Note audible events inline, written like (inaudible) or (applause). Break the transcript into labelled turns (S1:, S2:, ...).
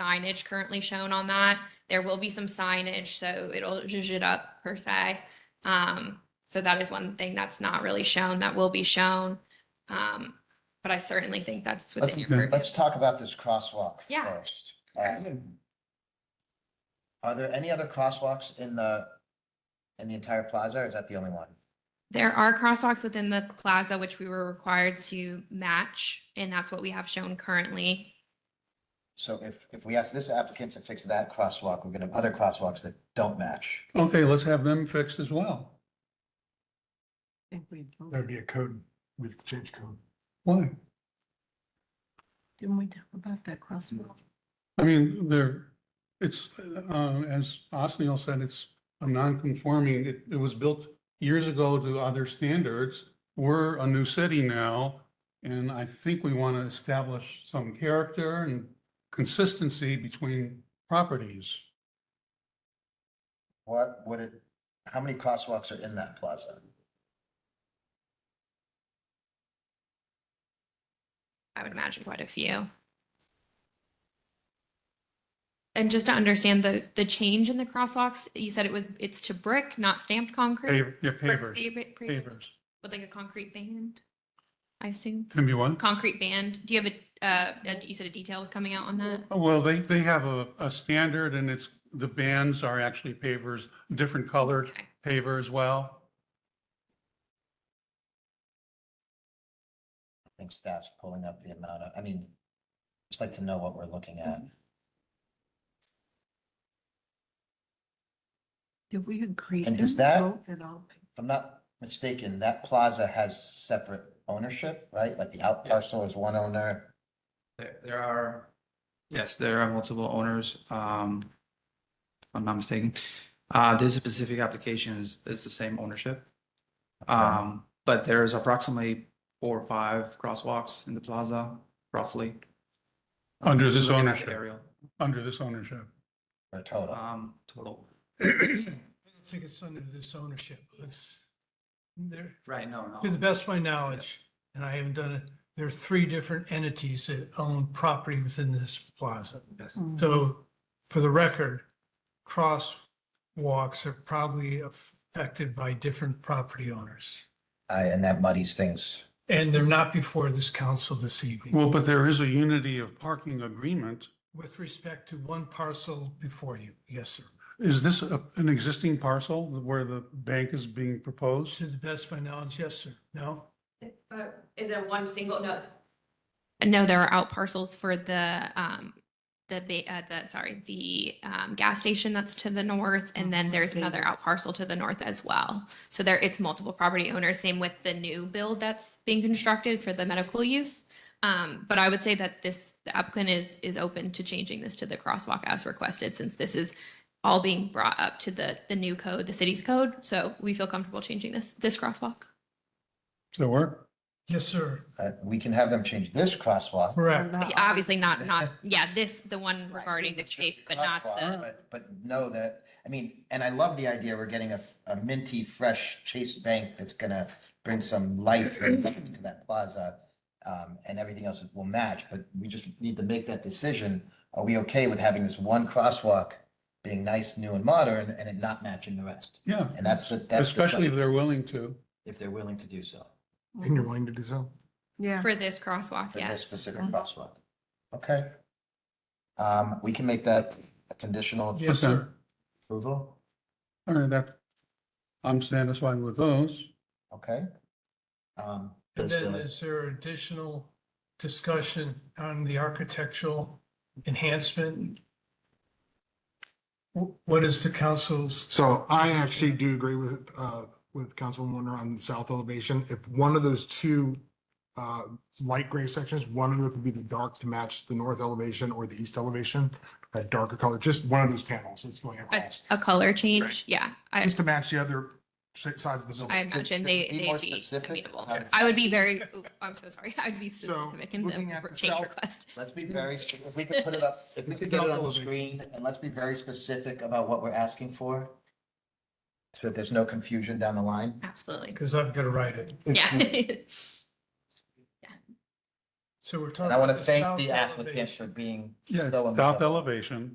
S1: signage currently shown on that. There will be some signage, so it'll zhuzh it up per se. Um, so that is one thing that's not really shown, that will be shown. Um, but I certainly think that's
S2: Let's-
S1: within your purview.
S2: Let's talk about this crosswalk
S1: Yeah.
S2: first. Um, Are there any other crosswalks in the, in the entire plaza, or is that the only one?
S1: There are crosswalks within the plaza which we were required to match, and that's what we have shown currently.
S2: So if, if we ask this applicant to fix that crosswalk, we're gonna have other crosswalks that don't match.
S3: Okay, let's have them fixed as well.
S4: think we, voted.
S5: That'd be a code, we'd change code.
S3: Why?
S4: didn't we talk about that crosswalk?
S3: I mean, they're, it's, uh, as Osniel said, it's a non-conforming, it, it was built years ago to other standards. We're a new city now, and I think we want to establish some character and consistency between properties.
S2: What would it, how many crosswalks are in that plaza?
S1: I would imagine quite a few. And just to understand the, the change in the crosswalks, you said it was, it's to brick, not stamped concrete?
S3: Pav- Yeah,
S1: Brick
S3: pavers,
S1: pave- pavers
S3: pavers.
S1: With like a concrete band, I assume?
S3: Can be what?
S1: Concrete band, do you have a, uh, a- you said a detail was coming out on that?
S3: Well, they, they have a, a standard and it's, the bands are actually pavers, different colored
S1: Okay.
S3: paver as well.
S2: I think staff's pulling up the amount of, I mean, just like to know what we're looking at.
S4: Did we agree?
S2: And does
S4: Didn't we
S2: that-
S4: vote At all.
S2: If I'm not mistaken, that plaza has separate ownership, right? Like the out parcel is one owner.
S6: There, there are, yes, there are multiple owners, um, if I'm not mistaken. Uh, this specific application is, is the same ownership. Um, but there's approximately four or five crosswalks in the plaza, roughly. Um,
S3: Under
S6: just
S3: this
S6: looking at the
S3: ownership.
S6: aerial,
S3: under this ownership.
S2: Or total.
S6: Um, total,
S7: I don't think it's under this ownership. It's, there,
S6: right, no,
S7: to the
S6: no,
S7: best of my knowledge, and I haven't done it, there are three different entities that own property within this plaza.
S6: yes.
S7: So for the record, crosswalks are probably affected by different property owners.
S2: I, and that muddies things.
S7: And they're not before this council this evening
S3: Well, but there is a unity of parking agreement.
S7: with respect to one parcel before you. Yes, sir.
S3: Is this a- an existing parcel where the bank is being proposed?
S7: To the best of my knowledge, yes, sir. No?
S1: Is it a one single, no? No, there are out parcels for the, um, the, ba- uh, the, sorry, the, um, gas station that's to the north. And then
S4: Mhm,
S1: there's another out
S4: Vegas.
S1: parcel to the north as well. So there, it's multiple property owners, same with the new build that's being constructed for the medical use. Um, but I would say that this, the applicant is, is open to changing this to the crosswalk as requested, since this is all being brought up to the, the new code, the city's code. So we feel comfortable changing this, this crosswalk.
S3: Does that work?
S7: Yes, sir.
S2: Uh, we can have them change this crosswalk.
S7: Correct.
S1: Yeah, Uh, Obviously not, not,
S2: (laughs)
S1: yeah, this, the one
S4: Right.
S1: regarding the shape, but not
S2: Crosswalk,
S1: the,
S2: but- But know that, I mean, and I love the idea, we're getting a, a minty, fresh Chase Bank that's gonna bring some life
S1: (clears throat)
S2: and- to that plaza. Um, and everything else will match, but we just need to make that decision. Are we okay with having this one crosswalk being nice, new and modern and it not matching the rest?
S3: Yeah.
S2: And that's the, that's. the-
S3: Especially if they're willing to.
S2: If they're willing to do so
S5: And you're willing to do so?
S4: Yeah.
S1: for this crosswalk,
S2: for this
S1: yes.
S2: specific crosswalk. Okay. Um, we can make that a conditional
S7: Yes,
S3: Okay.
S7: sir.
S2: approval,
S3: All right, that, I'm satisfied with those.
S2: okay? Um,
S7: And
S2: does
S7: then
S2: the-
S7: is there additional discussion on the architectural enhancement? Wh- What is the council's,
S5: So I actually do agree with, uh, with Councilman Warner on the south elevation. If one of those two, uh, light gray sections, one of them could be the dark to match the north elevation or the east elevation, that darker color, just one of those panels that's going
S1: A,
S5: across.
S1: a color change, yeah. I,
S5: Just to match the other si- sides of the building.
S1: I imagine they,
S2: Be more
S1: they'd be
S2: specific
S1: amenable.
S2: about-
S1: I would be very, ooh, I'm so sorry, (laughs) I'd be
S5: So,
S1: specific in
S5: looking at
S1: the
S5: the
S1: change
S5: south-
S1: request.
S2: Let's be very, spe- if we could put
S7: (laughs)
S2: it up, if we could get it on the screen, and let's be very specific about what we're asking for. So that there's no confusion down the line. (laughs)
S1: Absolutely,
S7: because I'm going to write it.
S1: yeah.
S7: So we're talking.
S2: And I want to
S7: about
S2: thank
S7: south
S2: the applicant
S7: elevation.
S2: for being.
S3: Yeah,
S2: so
S3: south
S2: amenable.
S3: elevation.